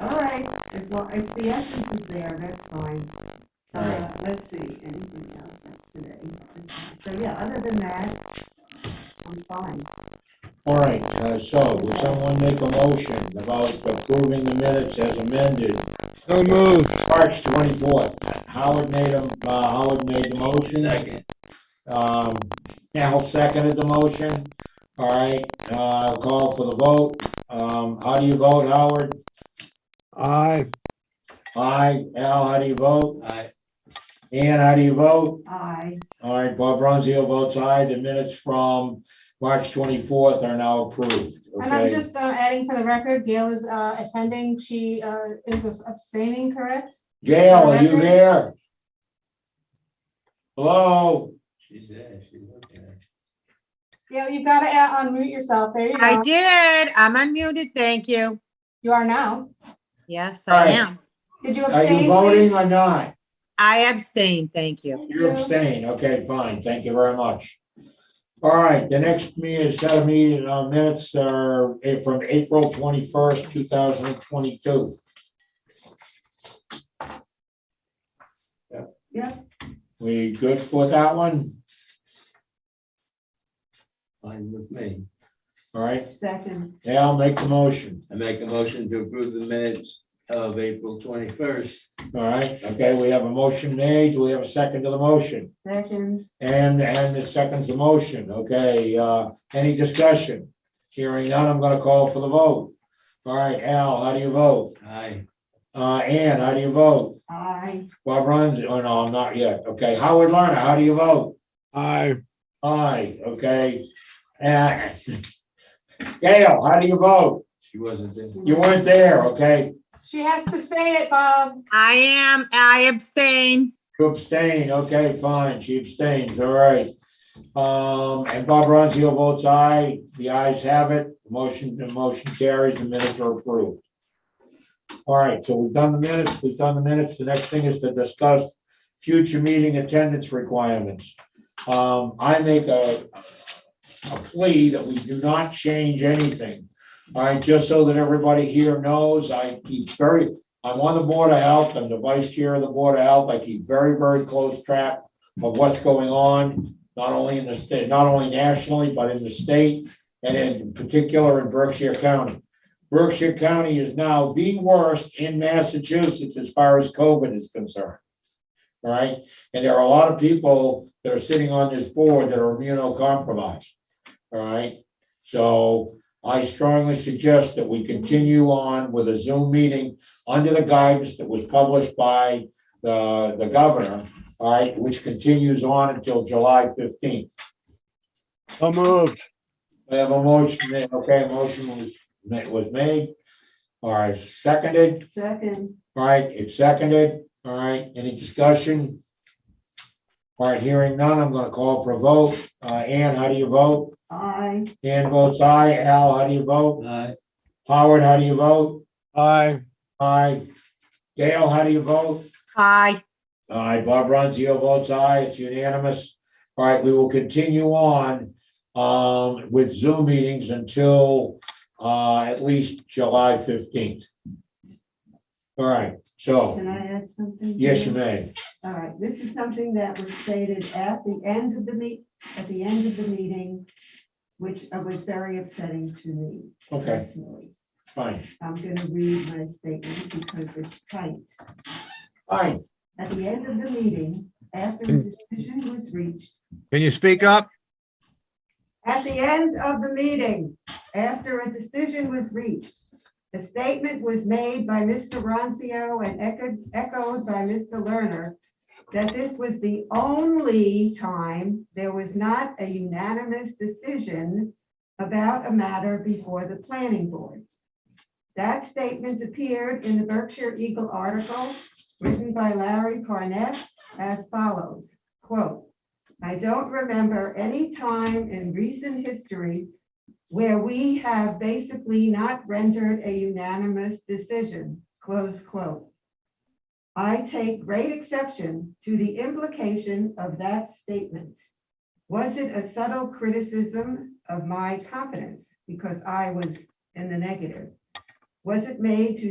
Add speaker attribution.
Speaker 1: right, as long, it's the essence is there, that's fine. Uh,
Speaker 2: Right.
Speaker 1: let's see, anything else that's today? So, yeah, other than that, I'm fine.
Speaker 2: All right, uh, so would someone make a motion about approving the minutes as amended,
Speaker 3: So moved.
Speaker 2: March twenty-fourth? Howard made a, uh, Howard made the motion.
Speaker 4: Second.
Speaker 2: Um, Al seconded the motion. All right, uh, call for the vote. Um, how do you vote, Howard?
Speaker 3: Aye.
Speaker 2: Aye. Al, how do you vote?
Speaker 4: Aye.
Speaker 2: Ann, how do you vote?
Speaker 1: I,
Speaker 2: All right, Bob Ronzio votes aye. The minutes from March twenty-fourth are now approved,
Speaker 5: And I'm
Speaker 2: okay?
Speaker 5: just uh, adding for the record, Gail is uh, attending. She uh, is abstaining, correct?
Speaker 2: Gail, are you there? Hello?
Speaker 4: She's there, she's looking at it.
Speaker 5: Yeah, you've got to unmute yourself. There you
Speaker 6: I
Speaker 5: go.
Speaker 6: did. I'm unmuted. Thank you.
Speaker 5: You are now.
Speaker 6: Yes,
Speaker 2: All
Speaker 6: I
Speaker 2: right.
Speaker 6: am.
Speaker 5: Did you
Speaker 2: Are you
Speaker 5: abstain?
Speaker 2: voting or
Speaker 5: please?
Speaker 2: not?
Speaker 6: I abstain. Thank you.
Speaker 2: You're abstaining, okay, fine, thank you very much. All right, the next meeting, set of meeting uh, minutes are eh, from April twenty-first, two thousand and twenty-two.
Speaker 1: Yep.
Speaker 2: We good for that one?
Speaker 4: Fine with me.
Speaker 2: All right,
Speaker 1: second,
Speaker 2: yeah, I'll make the motion,
Speaker 4: I make a motion to approve the minutes of April twenty-first.
Speaker 2: all right, okay, we have a motion made, we have a second to the motion.
Speaker 1: second,
Speaker 2: And, and the second's the motion, okay, uh, any discussion? Hearing none, I'm gonna call for the vote. All right, Al, how do you vote?
Speaker 4: Aye.
Speaker 2: Uh, Ann, how do you vote?
Speaker 1: I,
Speaker 2: Bob Runs, oh no, I'm not yet, okay, Howard Lerner, how do you vote?
Speaker 3: Aye.
Speaker 2: Aye, okay. Uh, Gail, how do you vote?
Speaker 4: She wasn't there.
Speaker 2: You weren't there, okay,
Speaker 5: She has to say it, Bob.
Speaker 6: I am. I abstain.
Speaker 2: you abstain, okay, fine, she abstains, all right. Um, and Bob Ronzio votes aye, the ayes have it, motion, the motion carries, the minutes are approved. All right, so we've done the minutes, we've done the minutes, the next thing is to discuss future meeting attendance requirements. Um, I make a, a plea that we do not change anything. All right, just so that everybody here knows, I keep very, I'm on the Board of Health, I'm the Vice Chair of the Board of Health, I keep very, very close track of what's going on, not only in the state, not only nationally, but in the state, and in particular in Berkshire County. Berkshire County is now the worst in Massachusetts as far as COVID is concerned. All right, and there are a lot of people that are sitting on this board that are immunocompromised. All right, so I strongly suggest that we continue on with a Zoom meeting under the guidance that was published by the, the governor, all right, which continues on until July fifteenth.
Speaker 3: So moved.
Speaker 2: We have a motion, made, okay, a motion was, ma- was made. All right, seconded,
Speaker 1: second,
Speaker 2: all right, it's seconded, all right, any discussion? All right, hearing none, I'm gonna call for a vote. Uh, Ann, how do you vote?
Speaker 1: I,
Speaker 2: Ann votes aye. Al, how do you vote?
Speaker 4: Aye.
Speaker 2: Howard, how do you vote?
Speaker 3: Aye.
Speaker 2: Aye. Gail, how do you vote?
Speaker 6: Aye.
Speaker 2: All right, Bob Ronzio votes aye, it's unanimous. All right, we will continue on um with Zoom meetings until uh at least July fifteenth. All right, so,
Speaker 1: can I add something?
Speaker 2: yes,
Speaker 1: here?
Speaker 2: you may.
Speaker 1: All right, this is something that was stated at the end of the meet, at the end of the meeting, which uh, was very upsetting to me
Speaker 2: Okay,
Speaker 1: personally.
Speaker 2: fine,
Speaker 1: I'm gonna read my statement because it's tight.
Speaker 2: fine.
Speaker 1: At the end of the meeting, after the decision was reached,
Speaker 3: Can you speak up?
Speaker 1: at the end of the meeting, after a decision was reached, a statement was made by Mr. Roncio and echoed, echoed by Mr. Lerner that this was the only time there was not a unanimous decision about a matter before the planning board. That statement appeared in the Berkshire Eagle article written by Larry Parness as follows, quote, I don't remember any time in recent history where we have basically not rendered a unanimous decision, close quote. I take great exception to the implication of that statement. Was it a subtle criticism of my competence because I was in the negative? Was it made to